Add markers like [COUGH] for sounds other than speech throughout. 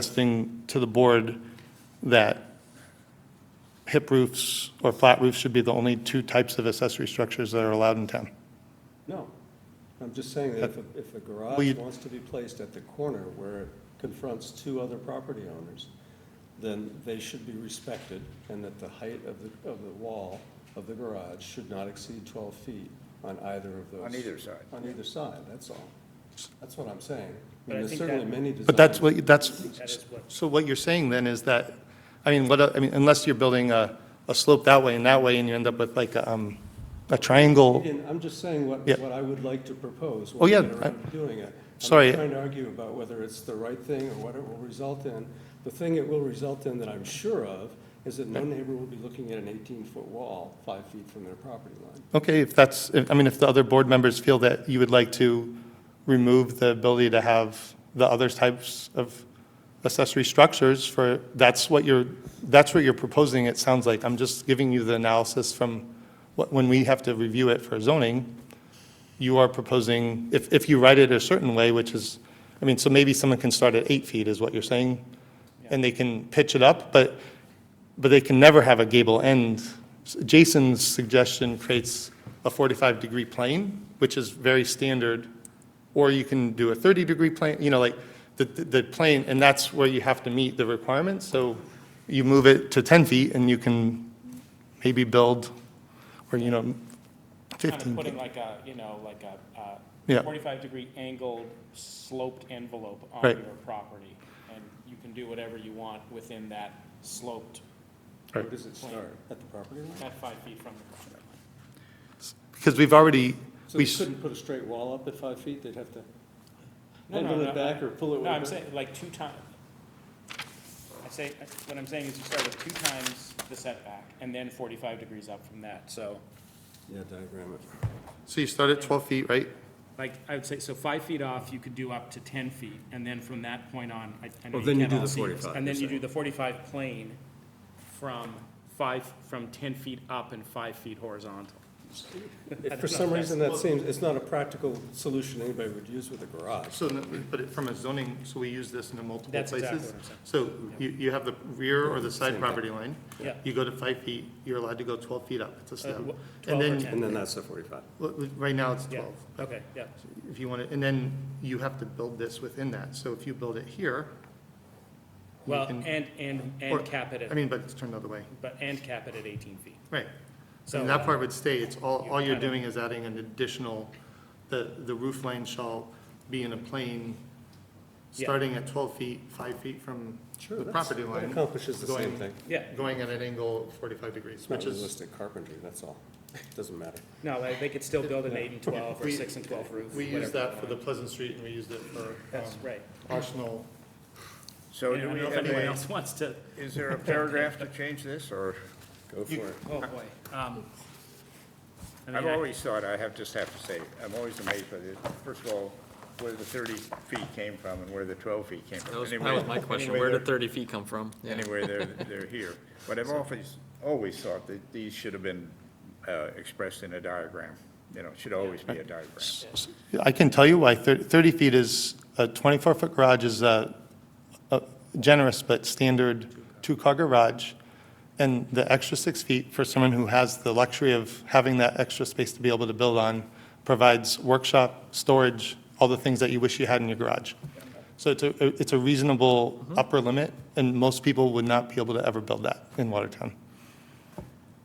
suggesting to the board that hip roofs or flat roofs should be the only two types of accessory structures that are allowed in town. No, I'm just saying that if, a- if a Well, you- garage wants to be placed at the corner where it confronts two other property owners, then they should be respected, and that the height of the, of the wall of the garage should not exceed twelve feet on either of those. On either side. On either side, that's all. That's what I'm saying. I But I mean, there's think certainly that- many designs. But that's what, That that's, is what- so what you're saying then is that, I mean, what, I mean, unless you're building a, a slope that way and that way, and you end up with like, a, um, a triangle. Again, I'm just saying what, Yeah. what I would like to propose. Oh, when we yeah, get I- around to Doing it. Sorry. I'm not trying to argue about whether it's the right thing or what it will result in. The thing it will result in that I'm sure of is that no neighbor will be looking at an 18-foot wall five feet from their property line. Okay, if that's, if- I mean, if the other board members feel that you would like to remove the ability to have the other types of accessory structures for, that's what you're, that's what you're proposing, it sounds like. I'm just giving you the analysis from, what- when we have to review it for zoning, you are proposing, if, if you write it a certain way, which is, I mean, so maybe someone can start at eight feet, is what you're saying? And they can pitch it up, but, but they can never have a gable end. Jason's suggestion creates a 45-degree plane, which is very standard, or you can do a 30-degree plane, you know, like, the, the the plane, and that's where you have to meet the requirements, so you move it to 10 feet, and you can maybe build, or, you know, kind of 15 feet. putting like a, you know, like a Yeah. uh, 45-degree angled sloped envelope on Right. your property, and you can do whatever you want within that sloped, Where Right. does it start? At the property line? not five feet from the property line. Because we've already, So we, they s- couldn't put a straight wall up at five feet? They'd have to No, no, angle no, it back or pull it way No, I'm back? saying, like, two times, I say, what I'm saying is you start with two times the setback, and then 45 degrees up from that, so, Yeah, diagram it. so you start at 12 feet, right? like, I would say, so five feet off, you could do up to 10 feet, and then from that point on, I- I know Well, you then you can't do all the see this. 45, And then you're you do the 45 plane from five, from 10 feet up and five feet horizontal. If for some reason that seems, it's not a practical solution anybody would use with a garage. So, no, but it- from a zoning, so we use this in multiple That's places? exactly what I'm saying. So you, you have the rear or the side property line? Yeah. Uh, You go to five feet, you're allowed to go twelve feet up, it's a step. wh- And 12 or then, 10. And then that's the 45. well, right now it's Yeah, twelve. okay, yeah. If you want to, and then you have to build this within that, so if you build it here. you Well, can- and, and, or- and cap it I at, mean, but it's turned the other way, but, and cap it at 18 feet. right. So, um, And that part would stay, it's all, you all you're kinda- doing is adding an additional, the, the roof line shall be in a plane, Yeah. starting at twelve feet, five feet from Sure, the that's- property line. That accomplishes the same going- thing. Yeah, going at an angle of 45 degrees, It's not which is, realistic carpentry, that's all. [LAUGHS] Doesn't matter. no, like, they could still build an eight and 12 or We- six and 12 roof. we whatever used they that for the want. Pleasant Street and we used it for That's um, right. Arsenal. So And I do don't we know have if anyone a, else wants to, is there a paragraph to change this, or? Go for it. oh, boy. [LAUGHS] Um, I mean, I've I- always thought, I have, just have to say, I'm always amazed by this. First of all, where the thirty feet came from and where the twelve feet came from. That was, that Anyway- was my question, anyway, where they're- did thirty feet come from? Yeah. Anyway, they're, they're here. But I've always, always thought that these should have been uh, expressed in a diagram. You know, it should always be a diagram. I can tell you why 30 30 feet is, a 24-foot garage is a a generous but standard two-car garage, and the extra six feet for someone who has the luxury of having that extra space to be able to build on provides workshop, storage, all the things that you wish you had in your garage. So it's a, it's a reasonable upper limit, and most people would not be able to ever build that in Watertown.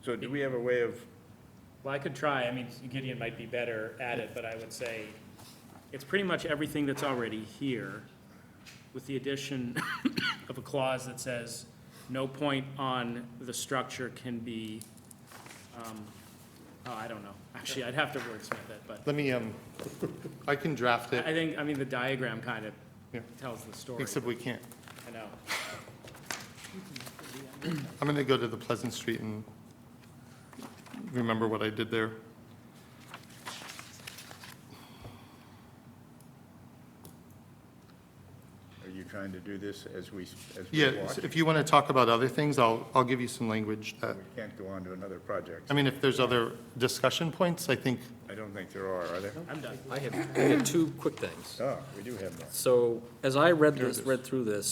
So do we have a way of, Well, I could try, I mean, Gideon might be better at it, but I would say it's pretty much everything that's already here, with the addition [COUGHS] of a clause that says, no point on the structure can be, um, oh, I don't know, actually, I'd have to wordsmith it, but Let me, um, I can draft I it, think, I mean, the diagram kind of Yeah. tells the story, except we can't. I know. I'm going to go to the Pleasant Street and remember what I did there. are you trying to do this as we, as we Yeah, watch? so if you want to talk about other things, I'll, I'll give you some language that, We can't go on to another project. I mean, if there's other discussion points, I think, I don't think there are, are there? I'm done. I have, I have two quick things. Oh, we do have more. So, as I read this, read through this,